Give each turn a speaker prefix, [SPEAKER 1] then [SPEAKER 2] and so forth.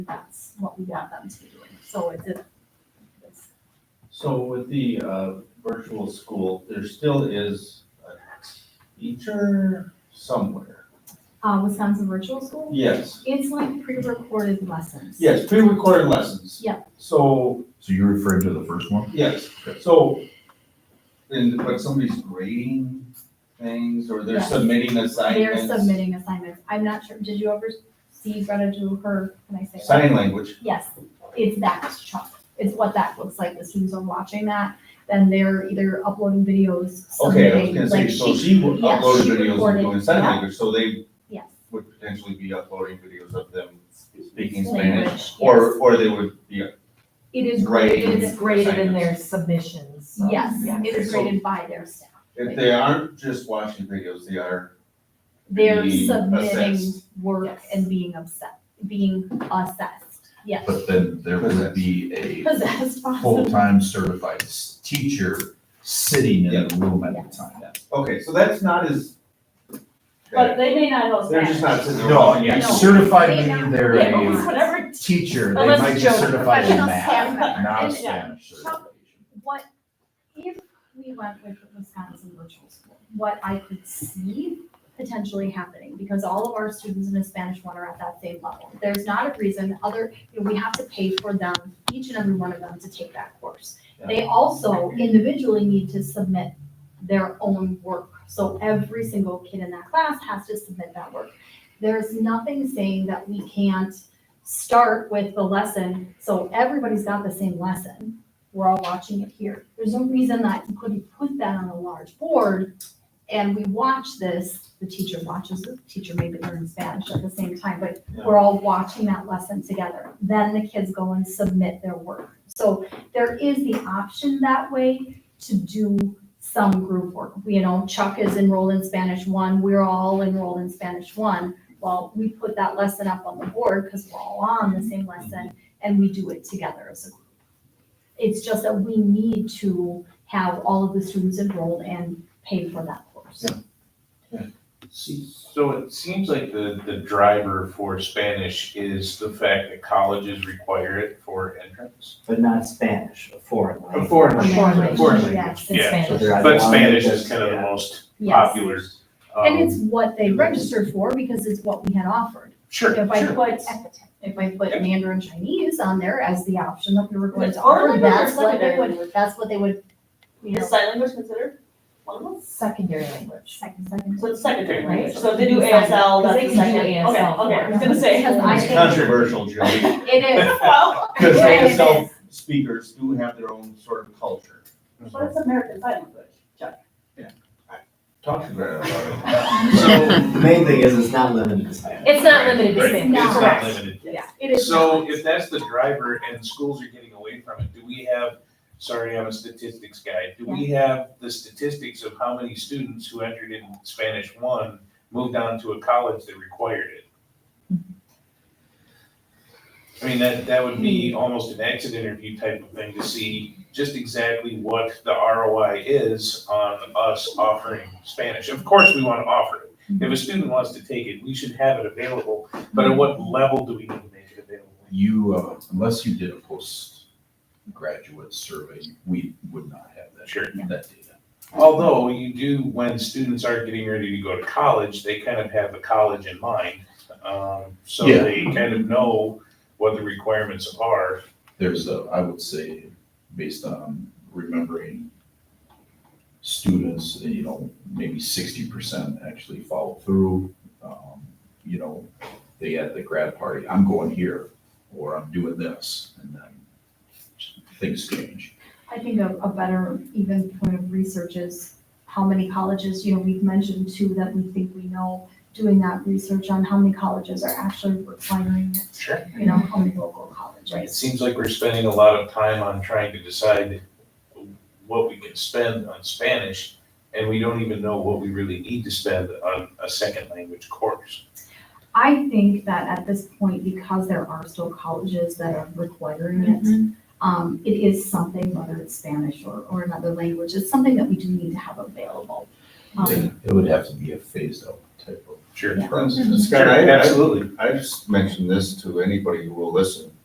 [SPEAKER 1] that's what we want them to be doing. So it's a, it's,
[SPEAKER 2] So with the uh, virtual school, there still is a teacher somewhere.
[SPEAKER 1] uh, Wisconsin Virtual School,
[SPEAKER 2] Yes,
[SPEAKER 1] it's like pre-recorded lessons.
[SPEAKER 2] yes, pre-recorded lessons.
[SPEAKER 1] Yeah.
[SPEAKER 2] So,
[SPEAKER 3] So you're referring to the first one?
[SPEAKER 2] yes, so, and, but somebody's grading things or they're
[SPEAKER 1] Yes.
[SPEAKER 2] submitting
[SPEAKER 1] They're
[SPEAKER 2] assignments?
[SPEAKER 1] submitting assignments. I'm not sure, did you ever see Greta do her, can I say? it?
[SPEAKER 2] Sign language,
[SPEAKER 1] Yes, it's that chunk. It's what that looks like. The students are watching that, then they're either uploading videos,
[SPEAKER 2] okay, I was
[SPEAKER 1] submitting,
[SPEAKER 2] gonna say,
[SPEAKER 1] like
[SPEAKER 2] so
[SPEAKER 1] she,
[SPEAKER 2] she would
[SPEAKER 1] yeah,
[SPEAKER 2] upload
[SPEAKER 1] she
[SPEAKER 2] videos and
[SPEAKER 1] recorded,
[SPEAKER 2] doing sign
[SPEAKER 1] yeah.
[SPEAKER 2] language, so they
[SPEAKER 1] yes.
[SPEAKER 2] would potentially be uploading videos of them speaking Spanish?
[SPEAKER 1] Language, yes.
[SPEAKER 2] Or, or they would be
[SPEAKER 4] It is
[SPEAKER 2] Grading
[SPEAKER 4] graded, it is graded in their submissions. so,
[SPEAKER 1] Yes,
[SPEAKER 4] yeah.
[SPEAKER 1] it is
[SPEAKER 2] So-
[SPEAKER 1] graded by their staff.
[SPEAKER 2] If they aren't just watching videos, they are.
[SPEAKER 1] They're
[SPEAKER 2] being
[SPEAKER 1] submitting
[SPEAKER 2] assessed.
[SPEAKER 1] work
[SPEAKER 4] Yes.
[SPEAKER 1] and being upset, being assessed, yes.
[SPEAKER 3] But then there would be a
[SPEAKER 1] Possessed, possibly.
[SPEAKER 3] full-time certified s- teacher sitting in the room at the time.
[SPEAKER 2] Okay, so that's not as.
[SPEAKER 5] But they may not know
[SPEAKER 2] They're just
[SPEAKER 5] Spanish.
[SPEAKER 2] not sitting there.
[SPEAKER 3] No,
[SPEAKER 2] watching
[SPEAKER 3] yeah,
[SPEAKER 2] videos.
[SPEAKER 3] certified
[SPEAKER 1] They
[SPEAKER 3] meaning
[SPEAKER 1] don't-
[SPEAKER 3] they're
[SPEAKER 5] They don't know
[SPEAKER 3] a
[SPEAKER 5] Whatever.
[SPEAKER 3] teacher, they
[SPEAKER 5] Unless
[SPEAKER 3] might be
[SPEAKER 5] Joe's a
[SPEAKER 3] certified in
[SPEAKER 1] professional
[SPEAKER 3] math,
[SPEAKER 1] stammer.
[SPEAKER 3] not a
[SPEAKER 1] And- uh,
[SPEAKER 3] Spanish certification.
[SPEAKER 1] What, if we went with Wisconsin virtual school, what I could see potentially happening, because all of our students in a Spanish one are at that same level. There's not a reason other, you know, we have to pay for them, each and every one of them to take that course. They also individually need to submit their own work. So every single kid in that class has to submit that work. There's nothing saying that we can't start with the lesson, so everybody's got the same lesson. We're all watching it here. There's no reason that you couldn't put that on a large board and we watch this, the teacher watches, it. the teacher maybe learns Spanish at the same time, but we're all watching that lesson together. Then the kids go and submit their work. So there is the option that way to do some group work. You know, Chuck is enrolled in Spanish one, we're all enrolled in Spanish one. Well, we put that lesson up on the board because we're all on the same lesson and we do it together as a group. It's just that we need to have all of the students enrolled and pay for that course.
[SPEAKER 6] So it seems like the, the driver for Spanish is the fact that colleges require it for entrance.
[SPEAKER 7] but not Spanish, a foreign
[SPEAKER 6] A
[SPEAKER 7] language.
[SPEAKER 6] foreign
[SPEAKER 4] A
[SPEAKER 6] language,
[SPEAKER 4] language,
[SPEAKER 6] a foreign
[SPEAKER 1] yes.
[SPEAKER 6] language.
[SPEAKER 4] In
[SPEAKER 6] Yeah.
[SPEAKER 7] So
[SPEAKER 4] Spanish.
[SPEAKER 7] they're at
[SPEAKER 6] But
[SPEAKER 7] one
[SPEAKER 6] Spanish is
[SPEAKER 7] that's-
[SPEAKER 6] kind of the
[SPEAKER 7] yeah.
[SPEAKER 6] most
[SPEAKER 1] Yes.
[SPEAKER 6] popular.
[SPEAKER 1] And it's
[SPEAKER 6] um,
[SPEAKER 1] what they registered for because it's what we had offered.
[SPEAKER 6] Sure,
[SPEAKER 1] If I
[SPEAKER 6] sure.
[SPEAKER 1] put, if I put Mandarin Chinese on there as the option that we were going
[SPEAKER 5] It's
[SPEAKER 1] to offer,
[SPEAKER 5] foreign
[SPEAKER 1] that's
[SPEAKER 5] language or
[SPEAKER 1] what they
[SPEAKER 5] secondary
[SPEAKER 1] would,
[SPEAKER 5] language?
[SPEAKER 1] that's what they would, you
[SPEAKER 5] Is
[SPEAKER 1] know,
[SPEAKER 5] sign language considered one of them?
[SPEAKER 4] Secondary language.
[SPEAKER 1] second, second.
[SPEAKER 5] So it's secondary,
[SPEAKER 6] Okay.
[SPEAKER 5] right? So if they do
[SPEAKER 1] Sign-
[SPEAKER 5] ASL,
[SPEAKER 4] Because
[SPEAKER 5] that's
[SPEAKER 4] they
[SPEAKER 5] the
[SPEAKER 4] can do
[SPEAKER 5] second. Okay,
[SPEAKER 4] ASL
[SPEAKER 5] okay, I was gonna
[SPEAKER 1] Because I think-
[SPEAKER 2] It's
[SPEAKER 4] say.
[SPEAKER 2] controversial, Joey,
[SPEAKER 1] It is.
[SPEAKER 5] Well,
[SPEAKER 2] because
[SPEAKER 1] Yeah, it
[SPEAKER 2] ASL speakers do have their own sort of culture.
[SPEAKER 5] but it's American sign language, Chuck.
[SPEAKER 2] Talk to Greta about
[SPEAKER 7] So the main thing is it's not limited to Spanish.
[SPEAKER 4] It's not limited to
[SPEAKER 6] Right.
[SPEAKER 4] Spanish.
[SPEAKER 6] It's not
[SPEAKER 1] Correct.
[SPEAKER 6] limited.
[SPEAKER 1] Yeah, it is.
[SPEAKER 6] So if that's the driver and schools are getting away from it, do we have, sorry, I'm a statistics guy, do we have the statistics of how many students who entered in Spanish one moved on to a college that required it? I mean, that, that would be almost an exit interview type of thing to see just exactly what the ROI is on us offering Spanish. Of course, we want to offer it. If a student wants to take it, we should have it available but at what level do we need to make it available?
[SPEAKER 3] You, uh, unless you did a postgraduate survey, we would not have that,
[SPEAKER 6] Sure.
[SPEAKER 3] that data.
[SPEAKER 6] Although you do, when students are getting ready to go to college, they kind of have the college in mind. Um, so
[SPEAKER 3] Yeah.
[SPEAKER 6] they kind of know what the requirements are.
[SPEAKER 3] There's a, I would say, based on remembering students, you know, maybe sixty percent actually follow through. Um, You know, they at the grad party, I'm going here, or I'm doing this, and then things change.
[SPEAKER 1] I think a, a better even point of research is how many colleges, you know, we've mentioned two that we think we know, doing that research on how many colleges are actually requiring it,
[SPEAKER 6] Sure.
[SPEAKER 1] you know, how many local
[SPEAKER 6] It
[SPEAKER 1] colleges.
[SPEAKER 6] seems like we're spending a lot of time on trying to decide what we can spend on Spanish, and we don't even know what we really need to spend on a second language course.
[SPEAKER 1] I think that at this point, because there are still colleges that are requiring it, um, it is something, whether it's Spanish or, or another language, it's something that we do need to have available. Um,
[SPEAKER 3] It would have to be a phased out type of
[SPEAKER 6] Sure.
[SPEAKER 2] That's-
[SPEAKER 6] Sure,
[SPEAKER 2] I- I-
[SPEAKER 6] absolutely.
[SPEAKER 1] Mm-hmm.
[SPEAKER 2] I've mentioned this to anybody who will listen.